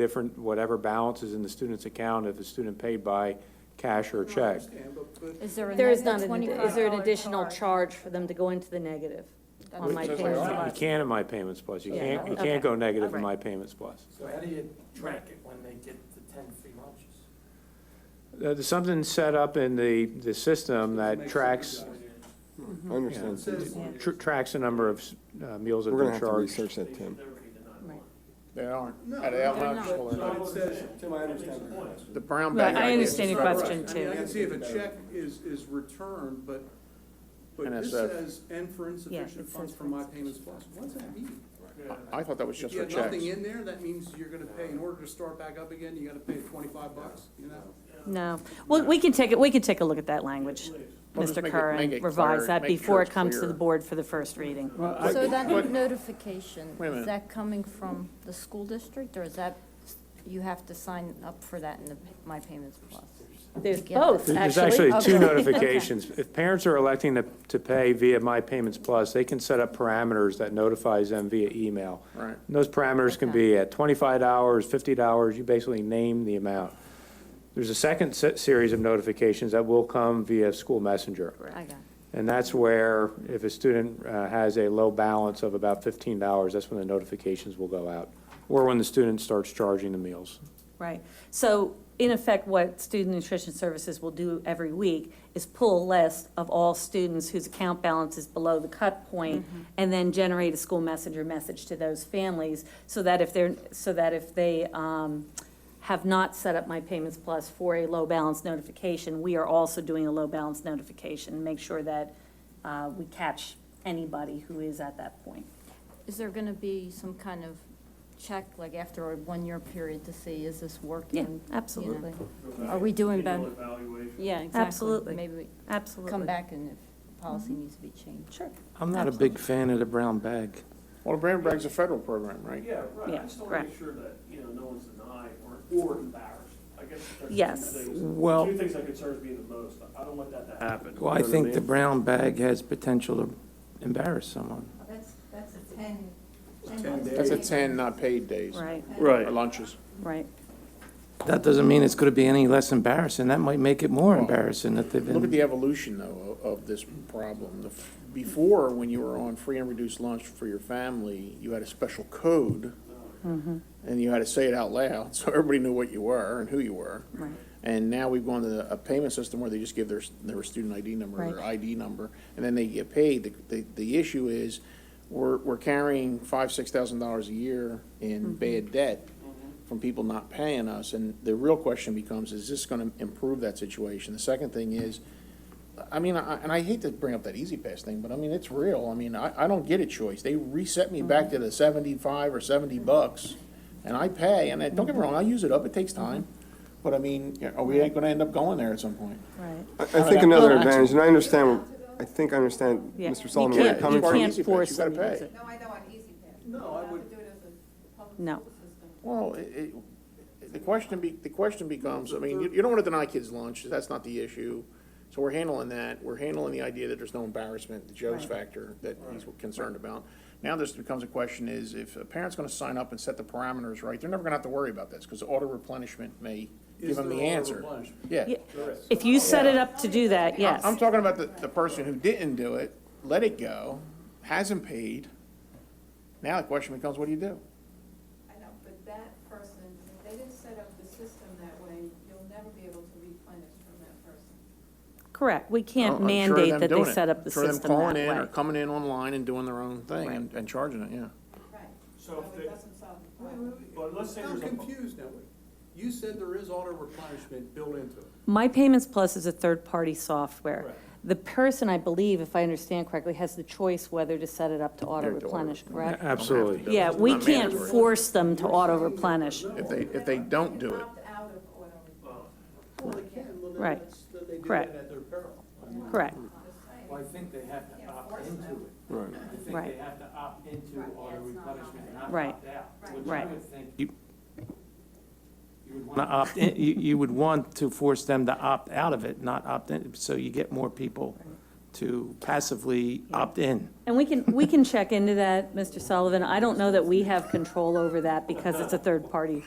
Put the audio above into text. different, whatever balance is in the student's account, if the student paid by cash or I check. understand, but- but Is there a There is negative not, twenty-five an- dollar is there an additional charge for them to go into the negative on That's my what You it is. payment? can in My Payments Plus, you Yeah, can't, you okay. can't go negative in Alright. My Payments Plus. So how do you track it when they get the ten free lunches? Uh, There's something set up in the, the system that Makes tracks, sense. I It understand. says We're on tr- tracks the number of uh, meals that have gonna been have to charged. research that, Tim. They aren't, No, at they're elementary not. school, But they're but not. it says, Tim, I understand your question. the brown Right, bag. I understand your ideas. question I mean, I too. can see if a check is, is returned, but, but this NSF. says, and for Yeah, insufficient it funds says for for my payments plus, what does that mean? I thought that was If just you for have nothing checks. in there, that means you're gonna pay, in order to start back up again, you gotta pay twenty-five bucks, you know? No, well, we can take, it. we can take a look at that language, Well, just Mr. make it- Kerr, make and it revise clear, that make sure before it it's comes to the clear. board for the first reading. So But- that notification, Wait a minute. is that coming from the school district, or is that, you have to sign up for that in the My Payments Plus? There's Yeah. both, There's There's actually. actually two Okay. notifications. If parents are electing to, to pay via My Payments Plus, they can set up parameters that notifies them via email. Right. And Those parameters can be at twenty-five dollars, fifty dollars, you basically name the amount. There's a second se- series of notifications that will come via school messenger. I got it. And that's where, if a student uh, has a low balance of about fifteen dollars, that's when the notifications will go out. Or when the student starts charging the meals. Right, so in effect, what Student Nutrition Services will do every week is pull a list of all students whose account balance is below the cut point, and then generate a school messenger message to those families, so that if they're, so that if they, um, have not set up My Payments Plus for a low balance notification, we are also doing a low balance notification, make sure that, uh, we catch anybody who is at that point. Is there gonna be some kind of check, like after a one-year period to see, is this working? Yeah, you know? absolutely, Are we doing better? Yeah, exactly. Absolutely. Maybe we absolutely. Mm-hmm. come back and if policy needs to be changed. Sure, I'm not a big fan of the brown bag. Well, the brown bag's a federal program, right? Yeah, right, Yeah, I just wanna correct. make sure that, you know, no one's denied or, or embarrassed, I guess there's Yes. two things. Well- Two things that concerns me the most, I don't want that to happen. Well, I think the brown bag has potential to embarrass someone. That's, that's a ten. Ten days. That's a ten not paid days. right, Or lunches. right. That doesn't mean it's going to be any less embarrassing. That might make it more Well, embarrassing if they've Look at been, the evolution, though, o- of this problem. The f- Before, when you were on free and reduced lunch for your family, you had a special code, Mm-hmm. and you had to say it out loud, so everybody knew what you were and who you were. Right. And now we've gone to a payment system where they just give their, s- their student ID number, or their Right. ID number, and then they get paid. The, the, the issue is, we're, we're carrying five, six thousand dollars a year in bad debt from people not paying us, and the real question becomes, is this gonna improve that situation? The second thing is, I mean, I, and I hate to bring up that Easy Pass thing, but I mean, it's real. I mean, I, I don't get a choice. They reset me back to the seventy-five or seventy bucks, and I pay, and I, don't get me wrong, I use it up, it takes time. But I mean, are we gonna end up going there at some point? Right. I I think another advantage, and I understand, I think I understand Yeah. Mr. You Solomon where you're can't- coming You from. can't Easy Pass, force you gotta them to use pay. it. No, I know on Easy Pass. No, I would- Do it as a public No. school system. Well, it, it- the question be, the question becomes, I mean, you, you don't wanna deny kids lunch, that's not the issue. So we're handling that, we're handling the idea that there's no embarrassment, the Joe's factor that he's concerned about. Now this becomes a question is, if a parent's gonna sign up and set the parameters right, they're never gonna have to worry about this, cause auto replenishment may give Is them there the auto answer. replenishment? Yeah. Yeah, If you set it up to do that, yes. I'm talking about the, the person who didn't do it, let it go, hasn't paid. Now the question becomes, what do you do? I know, but that person, if they didn't set up the system that way, you'll never be able to replenish from that person. Correct, we I'm can't sure mandate them that they doing it. set up the Sure them system that calling in Or way. coming in online and doing their own thing and- and charging it, yeah. Right. So if it they, doesn't solve the Wait, problem. wait, wait. but let's say I'm there's a. confused now. You said there is auto replenishment built into it. My Payments Plus is a third-party software. Correct. The person, I believe, if I understand correctly, has the choice whether to set it up to auto-replenish, correct? Absolutely. Yeah, we Not can't mandatory. force them to auto-replenish. If they, if they don't do it, Opt out of auto replenishment. Well, they can, well, then Right. that's, then they do Correct. that at their peril. Correct, Well, I think they have to opt into it. Right. I think Right. they have to opt into auto replenishment, not Right. opt out, which I Right. would think You- you would want. Not opt in- you, you would want to force them to opt out of it, not opt in, so you get more people to passively opt in. and we can, we can check into that, Mr. Sullivan. I don't know that we have control over that because it's a third-party